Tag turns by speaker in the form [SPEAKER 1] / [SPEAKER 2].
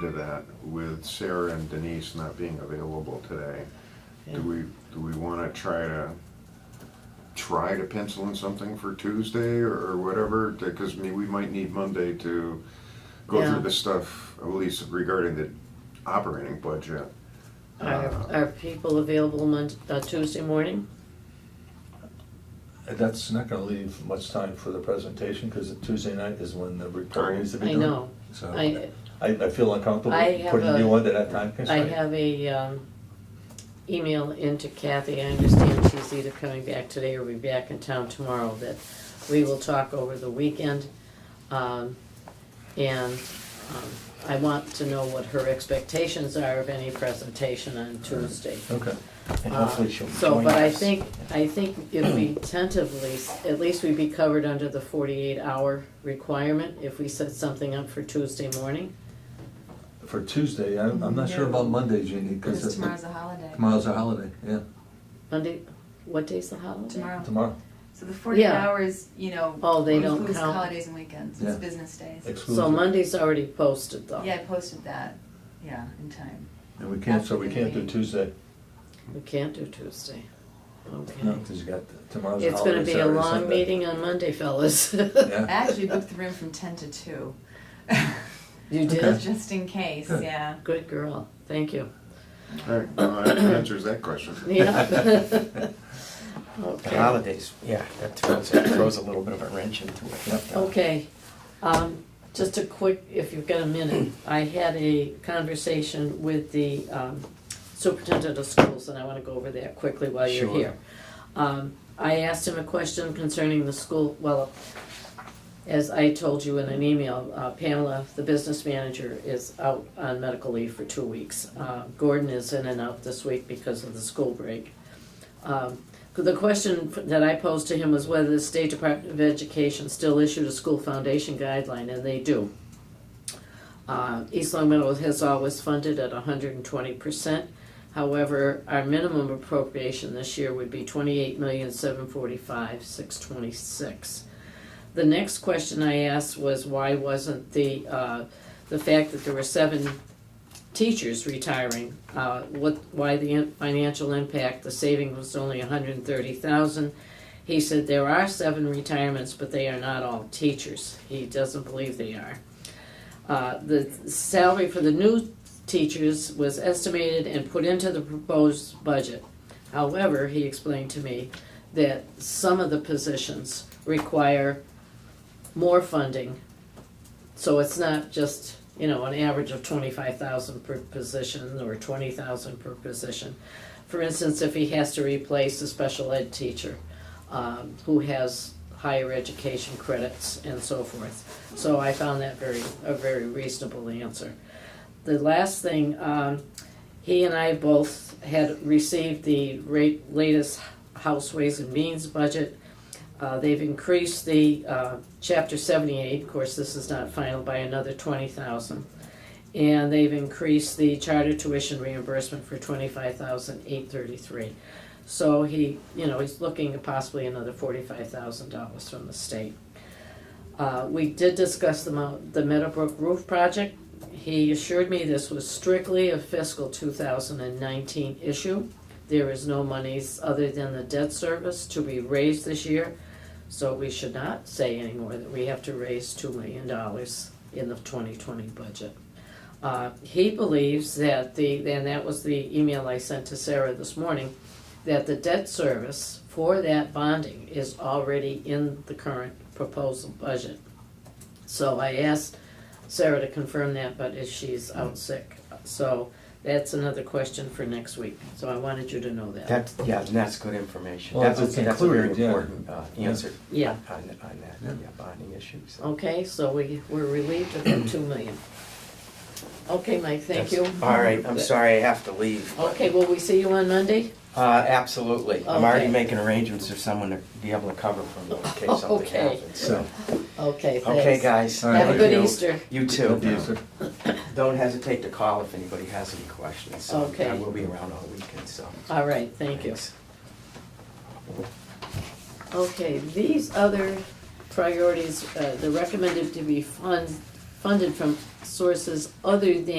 [SPEAKER 1] to that with Sarah and Denise not being available today. Do we, do we wanna try to, try to pencil in something for Tuesday or whatever? Because I mean, we might need Monday to go
[SPEAKER 2] Yeah.
[SPEAKER 1] through the stuff, at least regarding the operating budget.
[SPEAKER 2] Are, are people available Mon- uh, Tuesday morning?
[SPEAKER 3] That's not gonna leave much time for the presentation, because Tuesday night is when the report needs to be
[SPEAKER 2] I
[SPEAKER 3] done.
[SPEAKER 2] know.
[SPEAKER 3] So,
[SPEAKER 2] I,
[SPEAKER 3] I, I feel uncomfortable
[SPEAKER 2] I have
[SPEAKER 3] putting you
[SPEAKER 2] a-
[SPEAKER 3] under that time
[SPEAKER 2] I
[SPEAKER 3] constraint.
[SPEAKER 2] have a, um, email into Kathy, I understand she's either coming back today or be back in town tomorrow, that we will talk over the weekend. Um, and, um, I want to know what her expectations are of any presentation on Tuesday.
[SPEAKER 3] Okay, and
[SPEAKER 2] Uh,
[SPEAKER 3] hopefully she'll join us.
[SPEAKER 2] So, but I think, I think if we tentatively, at least we'd be covered under the forty-eight hour requirement if we set something up for Tuesday morning.
[SPEAKER 3] For Tuesday, I'm, I'm not sure
[SPEAKER 4] Yeah.
[SPEAKER 3] about Monday, Jeannie, because
[SPEAKER 4] Because tomorrow's a holiday.
[SPEAKER 3] tomorrow's a holiday, yeah,
[SPEAKER 2] Monday, what day's the holiday?
[SPEAKER 4] Tomorrow.
[SPEAKER 3] tomorrow,
[SPEAKER 4] So the 48
[SPEAKER 2] Yeah.
[SPEAKER 4] hours, you know,
[SPEAKER 2] Oh, they don't
[SPEAKER 4] includes
[SPEAKER 2] count.
[SPEAKER 4] holidays and weekends.
[SPEAKER 3] Yeah. oh.
[SPEAKER 4] It's business days.
[SPEAKER 3] exclusive.
[SPEAKER 2] So Monday's already posted though.
[SPEAKER 4] Yeah, I posted that. Yeah, in time.
[SPEAKER 3] And we can't, so we can't do
[SPEAKER 4] Absolutely.
[SPEAKER 3] Tuesday,
[SPEAKER 2] We can't do Tuesday.
[SPEAKER 3] no,
[SPEAKER 2] Okay.
[SPEAKER 3] because you got, tomorrow's a holiday.
[SPEAKER 2] It's gonna be a
[SPEAKER 3] Saturday,
[SPEAKER 2] long
[SPEAKER 3] Sunday.
[SPEAKER 2] meeting on Monday, fellas.
[SPEAKER 4] I
[SPEAKER 3] Yeah,
[SPEAKER 4] actually booked the room from 10 to 2.
[SPEAKER 2] You did?
[SPEAKER 3] Okay.
[SPEAKER 4] Just in case,
[SPEAKER 3] Good.
[SPEAKER 4] yeah.
[SPEAKER 2] Good girl. Thank you.
[SPEAKER 1] Alright, well, that answers that question.
[SPEAKER 2] Yeah.
[SPEAKER 5] The
[SPEAKER 2] Okay.
[SPEAKER 5] holidays, yeah, that throws, that throws a little bit of a wrench into it.
[SPEAKER 2] Okay, um, just a quick, if you've got a minute, I had a conversation with the, um, superintendent of schools, and I wanna go over that quickly while you're
[SPEAKER 5] Sure.
[SPEAKER 2] here. Um, I asked him a question concerning the school, well, as I told you in an email, uh, Pamela, the business manager, is out on medical leave for two weeks. Uh, Gordon is in and out this week because of the school break. Um, the question that I posed to him was whether the State Department of Education still issued a school foundation guideline, and they do. Uh, East Long Meadow has always funded at hundred and twenty percent. However, our minimum appropriation this year would be twenty-eight million, seven forty-five, six twenty-six. The next question I asked was why wasn't the, uh, the fact that there were seven teachers retiring, uh, what, why the in- financial impact, the saving was only a hundred and thirty thousand. He said there are seven retirements, but they are not all teachers. He doesn't believe they are. Uh, the salary for the new teachers was estimated and put into the proposed budget. However, he explained to me that some of the positions require more funding so it's not just, you know, an average of twenty-five thousand per position or twenty thousand per position. For instance, if he has to replace a special ed teacher, um, who has higher education credits and so forth. So I found that very, a very reasonable answer. The last thing, um, he and I both had received the rate, latest House Ways and Means budget. Uh, they've increased the, uh, chapter seventy-eight, of course, this is not final, by another twenty thousand. And they've increased the charter tuition reimbursement for twenty-five thousand eight thirty-three. So he, you know, he's looking at possibly another forty-five thousand dollars from the state. Uh, we did discuss the Mount, the Meadowbrook roof project. He assured me this was strictly a fiscal two thousand and nineteen issue. There is no monies other than the debt service to be raised this year. So we should not say anymore that we have to raise two million dollars in the twenty twenty budget. Uh, he believes that the, and that was the email I sent to Sarah this morning, that the debt service for that bonding is already in the current proposal budget. So I asked Sarah to confirm that, but if she's out sick, so that's another question for next week, so I wanted you to know that.
[SPEAKER 5] That's, yeah, and that's good information.
[SPEAKER 3] Well,
[SPEAKER 5] That's,
[SPEAKER 3] it's
[SPEAKER 5] that's a very
[SPEAKER 3] included, yeah.
[SPEAKER 5] important uh, answer
[SPEAKER 2] Yeah, Oh,
[SPEAKER 5] on, on that,
[SPEAKER 3] Yeah.
[SPEAKER 5] yeah, bonding issue, so.
[SPEAKER 2] Okay, so we, we're relieved of the two million. Okay, Mike, thank you. Oh.
[SPEAKER 5] All right, I'm sorry I have to leave. but-
[SPEAKER 2] Okay, will we see you on Monday?
[SPEAKER 5] Uh, absolutely. I'm already
[SPEAKER 2] Okay.
[SPEAKER 5] making arrangements for someone to be able to cover for me in case something
[SPEAKER 2] Okay.
[SPEAKER 5] happens, so.
[SPEAKER 2] Okay, thanks.
[SPEAKER 5] Okay, guys.
[SPEAKER 3] All right.
[SPEAKER 2] Have a
[SPEAKER 5] thank
[SPEAKER 2] good
[SPEAKER 5] you.
[SPEAKER 2] Easter.
[SPEAKER 5] You
[SPEAKER 3] Good
[SPEAKER 5] too.
[SPEAKER 3] answer.
[SPEAKER 5] Don't hesitate to call if anybody has any questions. so
[SPEAKER 2] Okay.
[SPEAKER 5] I will be around all weekend, so.
[SPEAKER 2] All right, thank you.
[SPEAKER 5] Thanks.
[SPEAKER 2] Okay, these other priorities, uh, they're recommended to be fund, funded from sources other than